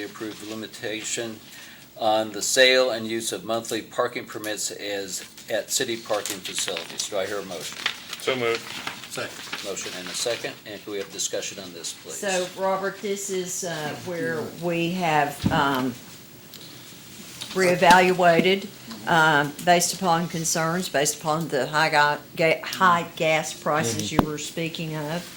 We approve the limitation on the sale and use of monthly parking permits as at city parking facilities. Do I hear a motion? So moved. Motion and a second, and can we have discussion on this, please? So, Robert, this is uh, where we have um, reevaluated um, based upon concerns, based upon the high ga- ga- high gas prices you were speaking of.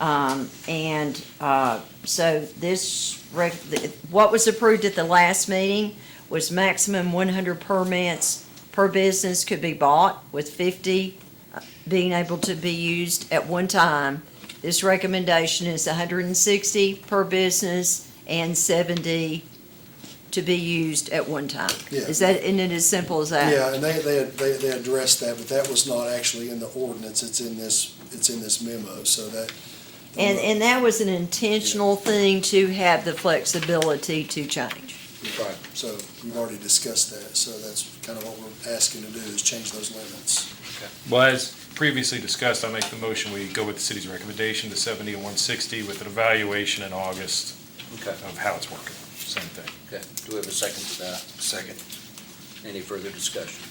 Um, And uh, so this, rec- th- what was approved at the last meeting was maximum 100 permits per business could be bought, with 50 being able to be used at one time. This recommendation is 160 per business and 70 to be used at one time. Yeah. Is that, isn't it as simple as that? Yeah, and they, they, they, they addressed that, but that was not actually in the ordinance, it's in this, it's in this memo, so that. And, and that was an intentional thing to have the flexibility to change. Right, so we've already discussed that, so that's kind of what we're asking to do, is change those limits. Well, as previously discussed, I make the motion, we go with the city's recommendation to 70 and 160 with an evaluation in August Okay, of how it's working. Same thing. okay. Do we have a second to that? Second. Any further discussion?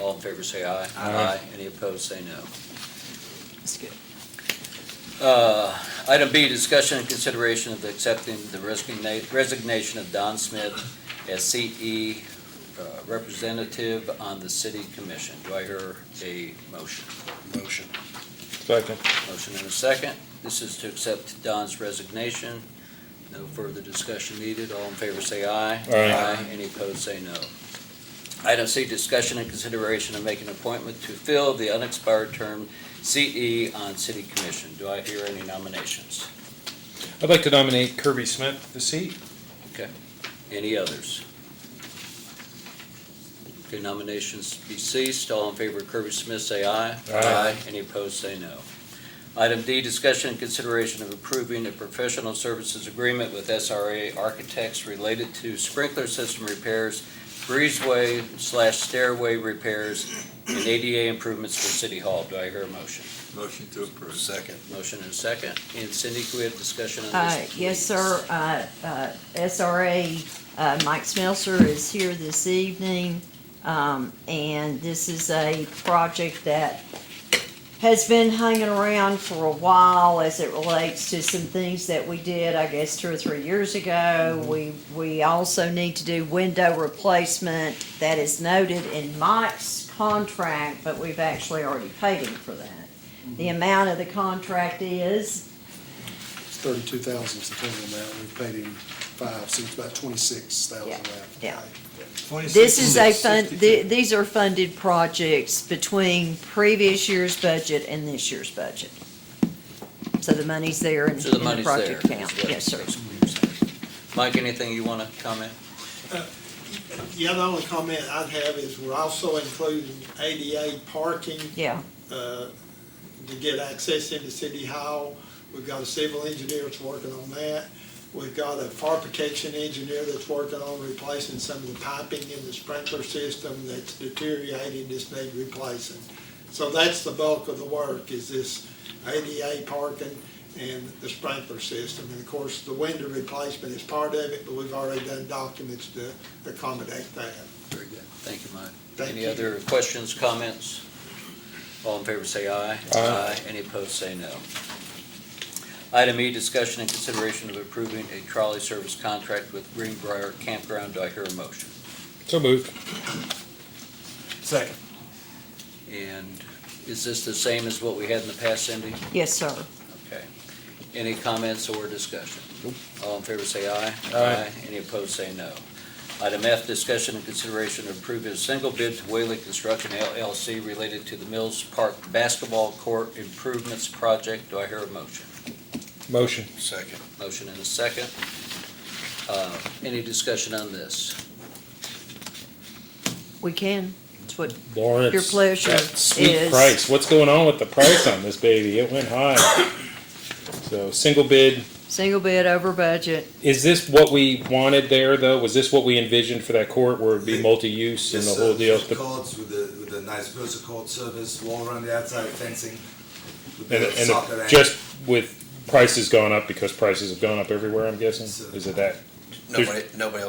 All in favor, say aye. Aye. Any opposed, say no. That's good. Uh, Item B, discussion and consideration of accepting the resigna- resignation of Don Smith as CE uh, representative on the city commission. Do I hear a motion? Motion. Second. Motion and a second. This is to accept Don's resignation. No further discussion needed. All in favor, say aye. Aye. Any opposed, say no. Item C, discussion and consideration of making appointment to fill the unexpired term CE on city commission. Do I hear any nominations? I'd like to nominate Kirby Smith to seat. Any others? Okay, nominations be ceased. All in favor of Kirby Smith, say aye. Aye. Any opposed, say no. Item D, discussion and consideration of approving a professional services agreement with SRA Architects related to sprinkler system repairs, breezeway slash stairway repairs, and ADA improvements for City Hall. Do I hear a motion? Motion to approve. Second. Motion and a second. And Cindy, can we have discussion on Uh, this? please? Yes, sir. Uh, uh, SRA, uh, Mike Smelser is here this evening. Um, And this is a project that has been hanging around for a while as it relates to some things that we did, I guess, two or three years ago. We, we also need to do window replacement that is noted in Mike's contract, but we've actually already paid him for that. The amount of the contract is It's thirty-two thousand is the total amount, we've paid him five, so it's about twenty-six thousand Yeah, left. yeah. This is a fund, th- these are funded projects between previous year's budget and this year's budget. So the money's there in in So the the money's there. project account. is what- Yes, sir. that's what you're saying. Mike, anything you want to comment? Yeah, the only comment I'd have is we're also including ADA parking Yeah, uh, to get access into City Hall. We've got a civil engineer that's working on that. We've got a fire protection engineer that's working on replacing some of the piping in the sprinkler system that's deteriorating, just need replacing. So that's the bulk of the work, is this ADA parking and the sprinkler system. And of course, the window replacement is part of it, but we've already done documents to accommodate that. Very good. Thank you, Mike. Thank Any you. other questions, comments? All in favor, say aye. Aye. Any opposed, say no. Item E, discussion and consideration of approving a trolley service contract with Greenbrier Campground. Do I hear a motion? So moved. Second. And is this the same as what we had in the past, Cindy? yes, sir. Okay. Any comments or discussion? All in favor, say aye. Aye. Any opposed, say no. Item F, discussion and consideration of approving a single bid to Whaley Construction LLC related to the Mills Park Basketball Court Improvements Project. Do I hear a motion? Motion. Second. Motion and a second. Uh, Any discussion on this? We can. It's what Lawrence. your pleasure that Sweet is. price. What's going on with the price on this baby? It went high. So single bid. Single bid over budget. Is this what we wanted there, though? Was this what we envisioned for that court where it'd be multi-use and the Just, whole uh, deal? just Courts with the, with the nice vertical surface, wall around the outside fencing. with And, the and soccer the- and- just with prices gone up because prices have gone up everywhere, I'm guessing? So- Is it that Nobody, nobody else